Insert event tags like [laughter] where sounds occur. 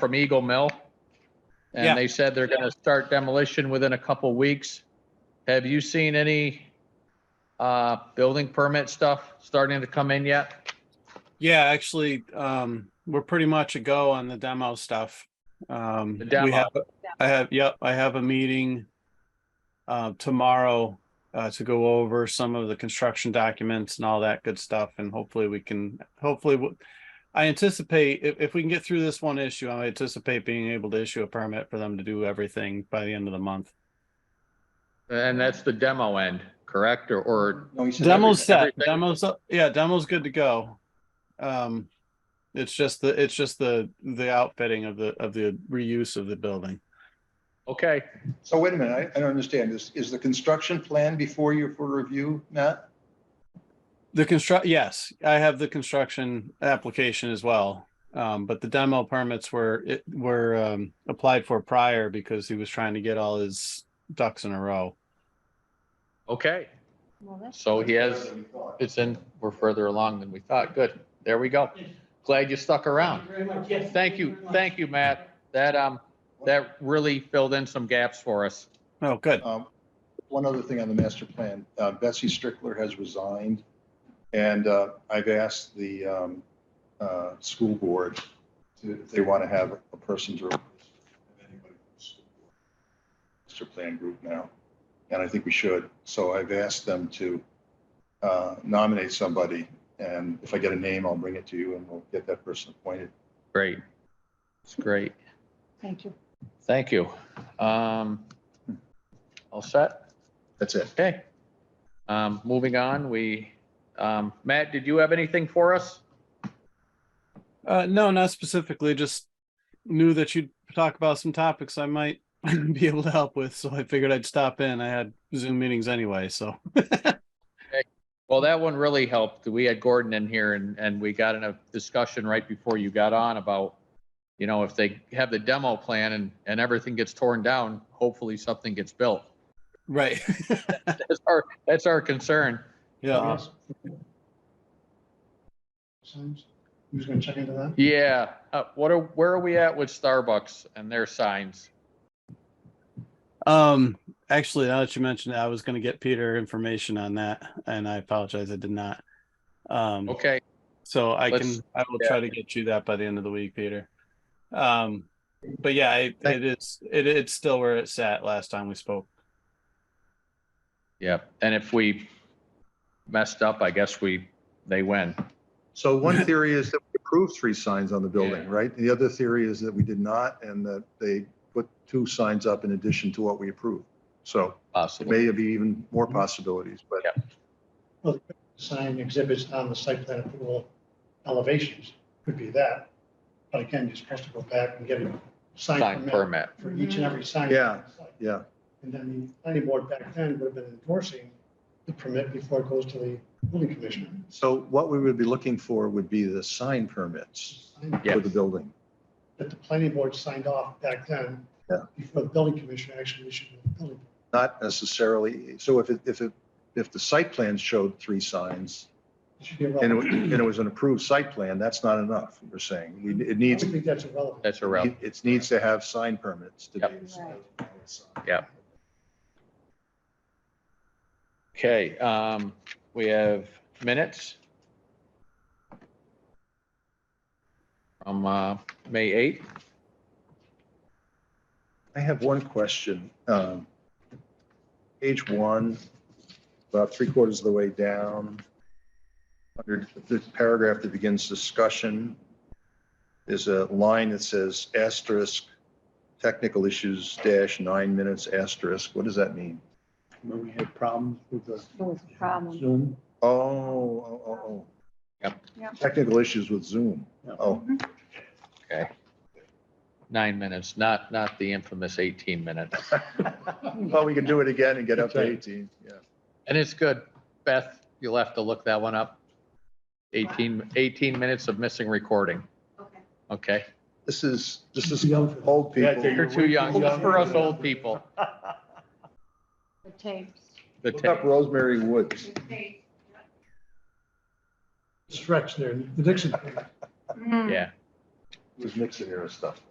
from Eagle Mill. Yeah. And they said they're gonna start demolition within a couple weeks. Have you seen any uh, building permit stuff starting to come in yet? Yeah, actually, um, we're pretty much a go on the demo stuff. Um, The we demo. have, I have, yep, I have a meeting uh, tomorrow uh, to go over some of the construction documents and all that good stuff, and hopefully we can, hopefully, w- I anticipate if, if we can get through this one issue, I anticipate being able to issue a permit for them to do everything by the end of the month. And that's the demo end, correct? Or, or No, he said Demo's every- set, everything- demo's, up- yeah, demo's good to go. Um, it's just the, it's just the, the outfitting of the, of the reuse of the building. okay, everything. So wait a minute, I, I don't understand. Is, is the construction plan before you for review, Matt? The construct, yes, I have the construction application as well. Um, but the demo permits were, it were, um, applied for prior because he was trying to get all his ducks in a row. okay. Well, that's So he has, it's in, we're further along than we thought. Good. There we go. Glad you stuck around. Thank you very much, yes. Thank you, very much. thank you, Matt. That, um, that really filled in some gaps for us. Oh, good. Um, One other thing on the master plan, uh, Betsy Strickler has resigned. And uh, I've asked the um, uh, school board to- if they want to have a person to. replace anybody from the school board. Master plan group now, and I think we should. So I've asked them to uh, nominate somebody. And if I get a name, I'll bring it to you and we'll get that person appointed. Great. It's great. Thank you. Thank you. Um, all set? That's it. Okay. Um, moving on, we, um, Matt, did you have anything for us? Uh, no, not specifically, just knew that you'd talk about some topics I might [laughs] be able to help with. So I figured I'd stop in. I had Zoom meetings anyway, so. Well, that one really helped. We had Gordon in here and, and we got in a discussion right before you got on about, you know, if they have the demo plan and, and everything gets torn down, hopefully something gets built. Right. [laughs] That's our, that's our concern. Yeah. Signs. Who's gonna check into that? Yeah, uh, what are, where are we at with Starbucks and their signs? Um, actually, now that you mentioned it, I was gonna get Peter information on that and I apologize, I did not. Um, Okay, so I let's- can, I will yeah. try to get you that by the end of the week, Peter. Um, but yeah, it, it is, it, it's still where it's at last time we spoke. Yeah, and if we messed up, I guess we, they win. So one theory is that we approved three signs on the building, Yeah. right? The other theory is that we did not and that they put two signs up in addition to what we approved. So it Possibly. may be even more Mm-hmm. possibilities, but Sign exhibits on the site plan approval elevations, could be that. But again, you're supposed to go back and get a sign Sign permit permit. for each and every sign. Yeah. yeah, And then the planning board back then would have been endorsing the permit before it goes to the building commissioner. so what we would be looking for would be the sign permits Yeah. for the building. That the planning board signed off back then. Yeah. Before the building commissioner actually issued the building. Not necessarily, so if it, if it, if the site plan showed three signs It should be and it, irrelevant. wa- and it was an approved site plan, that's not enough, you're saying. We- It I needs, don't think that's irrelevant. That's irrelevant. it needs to have sign permits to Yep. be. Yep. Okay, um, we have minutes. From, uh, May 8th. I have one question. Um, Page one, about three quarters of the way down, under the paragraph that begins discussion, is a line that says asterisk, technical issues dash nine minutes asterisk. What does that mean? When we had problems with the It was a problem. Zoom. Oh, oh, oh, oh. Yep. Yep. Technical issues with Zoom. Yeah. Oh, Nine minutes, not, not the infamous 18 minutes. well, we can do it again and get up to That's right. 18, yeah. And it's good. Beth, you'll have to look that one up. 18, 18 minutes of missing recording. Okay. This is, this is young for that. old Yeah, people. You're too young. For us old people, The tapes. the Look up tape. Rosemary Woods. Stretch there, the Dixon. Yeah. Mm-hmm. was Nixon era stuff.